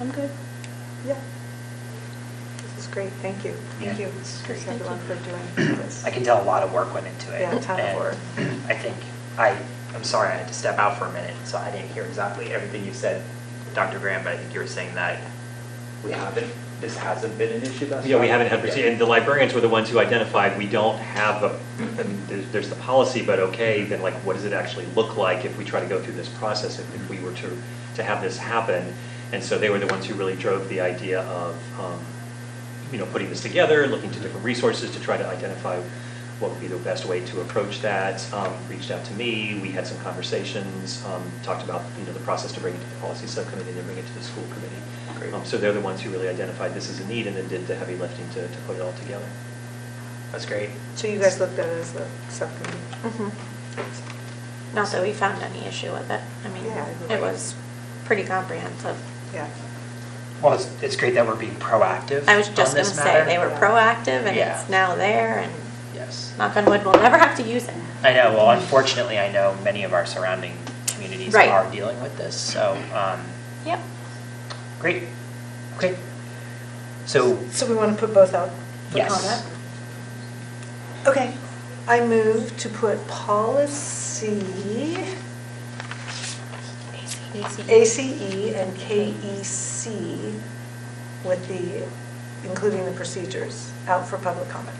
I'm good. Yeah. This is great, thank you. Thank Yeah. you, It's great, thanks thank everyone you. for doing this. I can tell a lot of work went into it. Yeah, a ton of and work. I think, I, I'm sorry, I had to step out for a minute, so I didn't hear exactly everything you said, Dr. Graham, but I think you were saying that we haven't, this hasn't been an issue thus far. Yeah, we haven't had, Yeah. and the librarians were the ones who identified, we don't have, a- and there's, there's the policy, but okay, then like, what does it actually look like if we try to go through this process, if, if we were to, to have this happen? And so they were the ones who really drove the idea of, um, you know, putting this together, looking to different resources to try to identify what would be the best way to approach that. Um, reached out to me, we had some conversations, um, talked about, you know, the process to bring it to the policy subcommittee, and then bring it to the school committee. Great. Um, so they're the ones who really identified this as a need and then did the heavy lifting to, to put it all together. That's great. So you guys looked at it as a subcommittee? Mhm. Not that we found any issue with it. I mean, Yeah, it right. was pretty comprehensive. Yeah, Well, it's, it's great that we're being proactive I was just on gonna this say, matter. they were Yeah. proactive and Yeah. it's now there and Yes. knock on wood, we'll never have to use it. I know, well, unfortunately, I know many of our surrounding communities Right. are dealing with this, so, um, Yep. great, okay. So, so we want to put both out? for yes. comment? Okay, I move to put policy ACE E and KEC with the, including the procedures, out for public comment.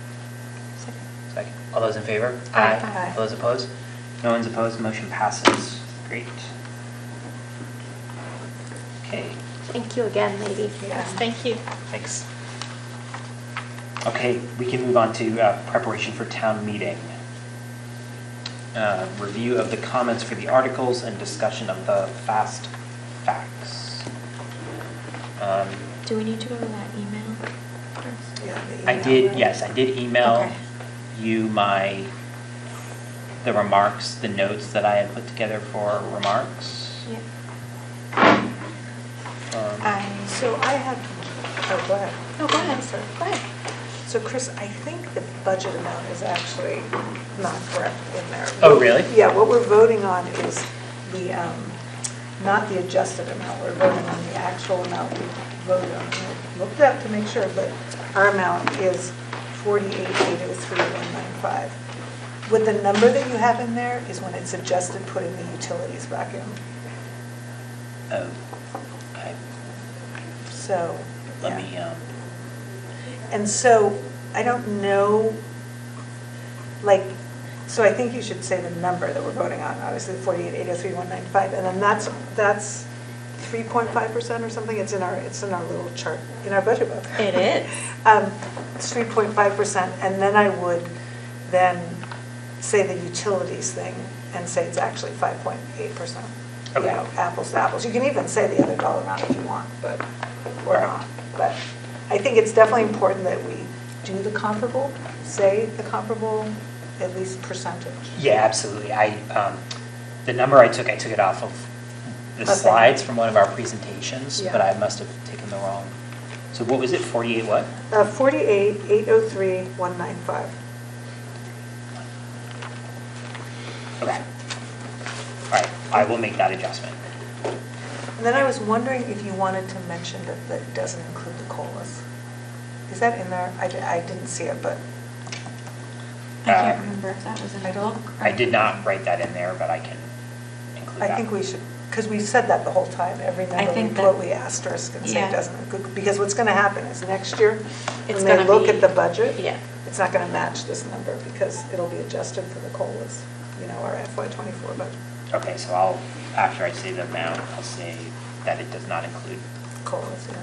Second. All those in favor? Aye. Aye. All those opposed? No one's opposed, motion passes. Great. Okay, Thank you again, lady. Yeah. Thank you. thanks. Okay, we can move on to uh, preparation for town meeting. Uh, Review of the comments for the articles and discussion of the fast facts. Um, Do we need to go to that email first? Yeah, the I email. did, yes, I did email Okay. you my, the remarks, the notes that I had put together for remarks. Yeah. Um, I. So I have, oh, go ahead. Oh, go ahead, Sorry. go ahead. So Chris, I think the budget amount is actually not correct in there. Oh, really? Yeah, what we're voting on is the, um, not the adjusted amount, we're voting on the actual amount we voted on. We'll Look it up to make sure, but our amount is 48,803,195. With the number that you have in there is when it's adjusted, putting the utilities back in. Oh, okay. So. Let yeah. me, um, And so, I don't know, like, so I think you should say the number that we're voting on, obviously, forty-eight, eight oh three, one nine five, and then that's, that's three point five percent or something, it's in our, it's in our little chart, in our budget book. It is. Um, It's three point five percent, and then I would then say the utilities thing and say it's actually five point eight percent. Okay. Apples to apples, you can even say the other dollar amount if you want, but, or Right. not. But I think it's definitely important that we do the comparable, say the comparable, at least percentage. yeah, absolutely. I, um, the number I took, I took it off of the Okay. slides from one of our presentations, Yeah. but I must have taken the wrong. So what was it, 48 what? Uh, forty-eight, eight oh three, one nine five. Okay. All right, I will make that adjustment. And then I was wondering if you wanted to mention that that doesn't include the COLAs. Is that in there? I, di- I didn't see it, but, I can't Um, remember if that was in I the don't- book. I did not write that in there, but I can include that. I think we should, because we said that the whole time, every I number we think put, that- we asterisk and say Yeah. it doesn't, include- because what's gonna happen is next year, It's when they gonna look be- at the budget, yeah. it's not gonna match this number, because it'll be adjusted for the COLAs, you know, our FY twenty-four budget, Okay, so I'll, after I say the amount, I'll say that it does not include. COLAs, yeah.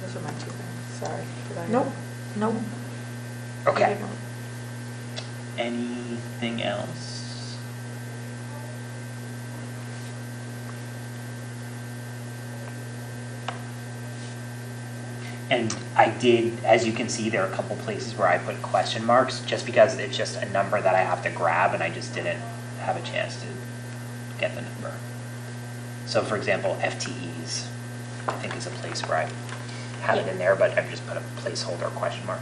Those are my two things, sorry. did I- Nope, nope. Okay. Anything else? And I did, as you can see, there are a couple places where I put question marks, just because it's just a number that I have to grab, and I just didn't have a chance to get the number. So for example, FTEs, I think is a place where I have it in there, but I've just put a placeholder question mark.